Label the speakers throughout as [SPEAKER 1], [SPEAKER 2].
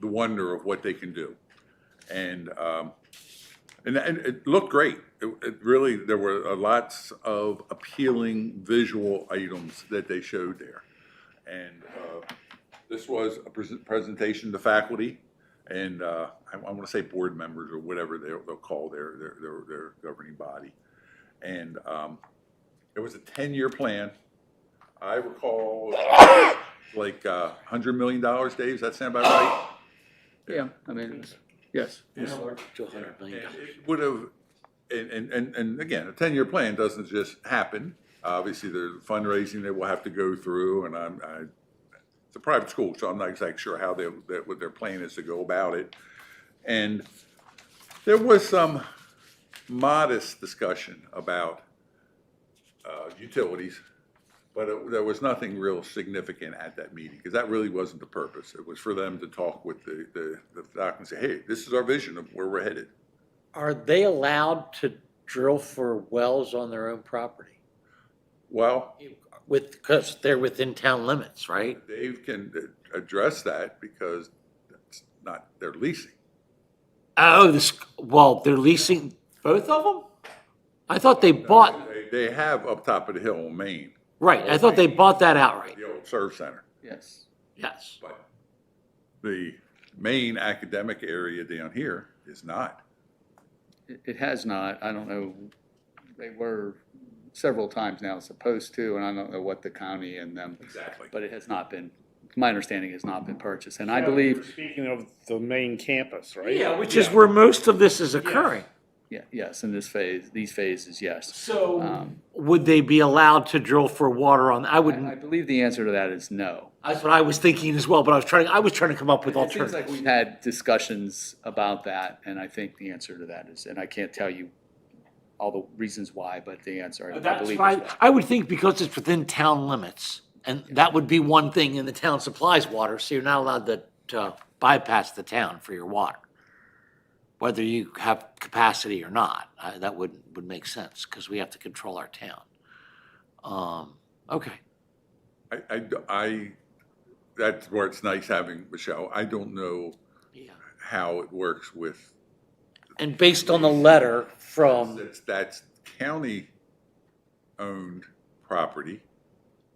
[SPEAKER 1] the wonder of what they can do. And, um, and, and it looked great. It, it really, there were uh, lots of appealing visual items that they showed there. And, uh, this was a pres- presentation to faculty and, uh, I, I wanna say board members or whatever they'll, they'll call their, their, their, their governing body. And, um, it was a ten-year plan. I recall like, uh, hundred million dollars, Dave, does that sound about right?
[SPEAKER 2] Yeah, I mean, it was, yes.
[SPEAKER 3] to
[SPEAKER 1] Yeah,
[SPEAKER 3] hundred million
[SPEAKER 1] and
[SPEAKER 3] dollars.
[SPEAKER 1] it Would have, and, and, and, and again, a ten-year plan doesn't just happen. Obviously, there's fundraising that we'll have to go through, and I'm, I, it's a private school, so I'm not exactly sure how they, that, what their plan is to go about it. And there was some modest discussion about, uh, utilities, but it- there was nothing real significant at that meeting, because that really wasn't the purpose. It was for them to talk with the, the, the faculty and say, hey, this is our vision of where we're headed.
[SPEAKER 3] Are they allowed to drill for wells on their own property?
[SPEAKER 1] Well,
[SPEAKER 3] With, because they're within town limits, right?
[SPEAKER 1] Dave can uh, address that because that's not their leasing.
[SPEAKER 3] Oh, this, well, they're leasing both of them? I thought they bought,
[SPEAKER 1] They- They have up top of the hill in Maine,
[SPEAKER 3] right, I thought they bought that outright,
[SPEAKER 1] the old serve center,
[SPEAKER 2] Yes.
[SPEAKER 3] yes.
[SPEAKER 1] but the main academic area down here is not.
[SPEAKER 2] It, it has not, I don't know, they were several times now supposed to, and I don't know what the county and them,
[SPEAKER 1] Exactly.
[SPEAKER 2] but it has not been, my understanding has not been purchased, and I believe,
[SPEAKER 4] Speaking of the main campus, right?
[SPEAKER 3] Yeah, which is where most of this is occurring.
[SPEAKER 2] yeah, yes, in this phase, these phases, yes.
[SPEAKER 3] So.
[SPEAKER 2] Um,
[SPEAKER 3] Would they be allowed to drill for water on, I
[SPEAKER 2] I, I
[SPEAKER 3] wouldn't,
[SPEAKER 2] believe the answer to that is no.
[SPEAKER 3] that's what I was thinking as well, but I was trying, I was trying to come up with
[SPEAKER 2] It seems like
[SPEAKER 3] alternatives.
[SPEAKER 2] we've had discussions about that, and I think the answer to that is, and I can't tell you all the reasons why, but the answer, I
[SPEAKER 3] That's
[SPEAKER 2] believe.
[SPEAKER 3] why, I would think because it's within town limits, and that would be one thing, and the town supplies water, so you're not allowed to, to bypass the town for your water. Whether you have capacity or not, uh, that would, would make sense, because we have to control our town. Um, okay,
[SPEAKER 1] I, I d- I- that's where it's nice having Michelle. I don't know
[SPEAKER 3] yeah,
[SPEAKER 1] how it works with,
[SPEAKER 3] and based on the letter from,
[SPEAKER 1] that's, that's county-owned property,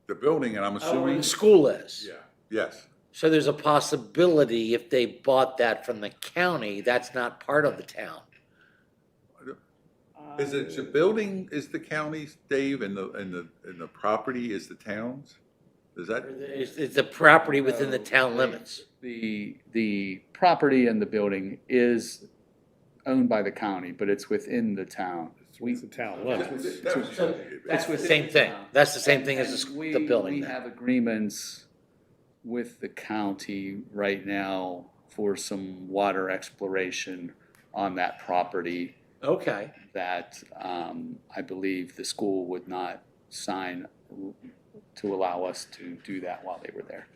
[SPEAKER 1] the building, and I'm
[SPEAKER 3] where the
[SPEAKER 1] assuming.
[SPEAKER 3] school is.
[SPEAKER 1] Yeah, yes.
[SPEAKER 3] So there's a possibility if they bought that from the county, that's not part of the town. Uh,
[SPEAKER 1] Is it, the building is the county's, Dave, and the, and the, and the property is the town's? Is that,
[SPEAKER 3] It's, it's a property within the town limits.
[SPEAKER 2] The, the property and the building is owned by the county, but it's within the town. We-
[SPEAKER 4] It's the
[SPEAKER 2] That's
[SPEAKER 4] town limits.
[SPEAKER 2] what's-
[SPEAKER 1] That was-
[SPEAKER 3] That's the
[SPEAKER 2] within
[SPEAKER 3] same
[SPEAKER 2] the
[SPEAKER 3] thing.
[SPEAKER 2] town.
[SPEAKER 3] That's the same thing as the s-
[SPEAKER 2] And
[SPEAKER 3] the
[SPEAKER 2] we-
[SPEAKER 3] building
[SPEAKER 2] We
[SPEAKER 3] then.
[SPEAKER 2] have agreements with the county right now for some water exploration on that property
[SPEAKER 3] Okay.
[SPEAKER 2] that um, I believe the school would not sign to allow us to do that while they were there.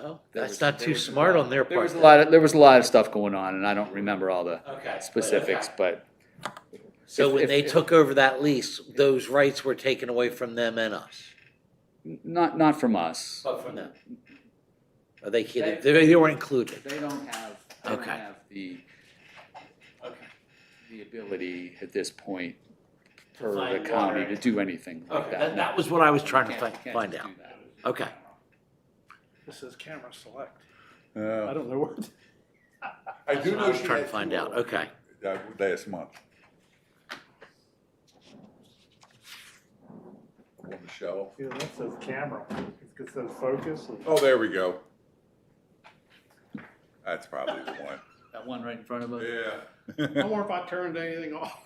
[SPEAKER 3] Well,
[SPEAKER 2] Oh. There
[SPEAKER 3] That's
[SPEAKER 2] was-
[SPEAKER 3] not
[SPEAKER 2] there
[SPEAKER 3] too
[SPEAKER 2] was a
[SPEAKER 3] smart
[SPEAKER 2] lot-
[SPEAKER 3] on their
[SPEAKER 2] There was
[SPEAKER 3] part.
[SPEAKER 2] a lot, of- there was a lot of stuff going on, and I don't remember all the
[SPEAKER 3] Okay.
[SPEAKER 2] specifics, but
[SPEAKER 3] So
[SPEAKER 2] if-
[SPEAKER 3] when
[SPEAKER 2] if-
[SPEAKER 3] they
[SPEAKER 2] if-
[SPEAKER 3] took over that lease, those rights were taken away from them and us.
[SPEAKER 2] not, not from us.
[SPEAKER 3] But from them. Are they kidding? They, they were included.
[SPEAKER 2] They don't have, they don't
[SPEAKER 3] Okay.
[SPEAKER 2] have the, the ability at this point per
[SPEAKER 3] find
[SPEAKER 2] the county
[SPEAKER 3] water.
[SPEAKER 2] to do anything like
[SPEAKER 3] Okay,
[SPEAKER 2] that.
[SPEAKER 3] that, that was what I was trying to
[SPEAKER 2] Can't-
[SPEAKER 3] find,
[SPEAKER 2] can't
[SPEAKER 3] find
[SPEAKER 2] just
[SPEAKER 3] out.
[SPEAKER 2] do that.
[SPEAKER 3] Okay.
[SPEAKER 4] This is camera select. I
[SPEAKER 1] Uh,
[SPEAKER 4] don't know where.
[SPEAKER 1] I do
[SPEAKER 3] I
[SPEAKER 1] know
[SPEAKER 3] was
[SPEAKER 1] she
[SPEAKER 3] trying to
[SPEAKER 1] had
[SPEAKER 3] find out. Okay.
[SPEAKER 1] that last month. On the shelf.
[SPEAKER 4] Yeah, that says camera. It says focus.
[SPEAKER 1] Oh, there we go. That's probably the one.
[SPEAKER 2] That one right in front of us?
[SPEAKER 1] Yeah.
[SPEAKER 4] wonder if I turned anything off.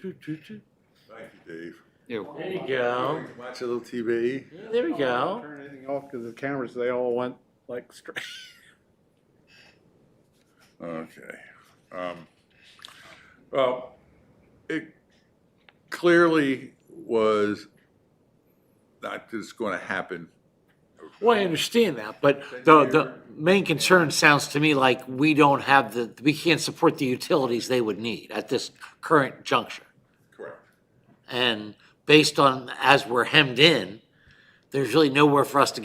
[SPEAKER 1] Thank you, Dave.
[SPEAKER 2] You're
[SPEAKER 3] There you go.
[SPEAKER 1] Watch a little TV.
[SPEAKER 3] There we go.
[SPEAKER 4] Turn anything off because the cameras, they all went like straight.
[SPEAKER 1] Okay. Um, Well, it clearly was not just going to happen.
[SPEAKER 3] Well, I understand that, but the, the main concern sounds to me like we don't have the, we can't support the utilities they would need at this current juncture.
[SPEAKER 1] Correct.
[SPEAKER 3] And based on, as we're hemmed in, there's really nowhere for us to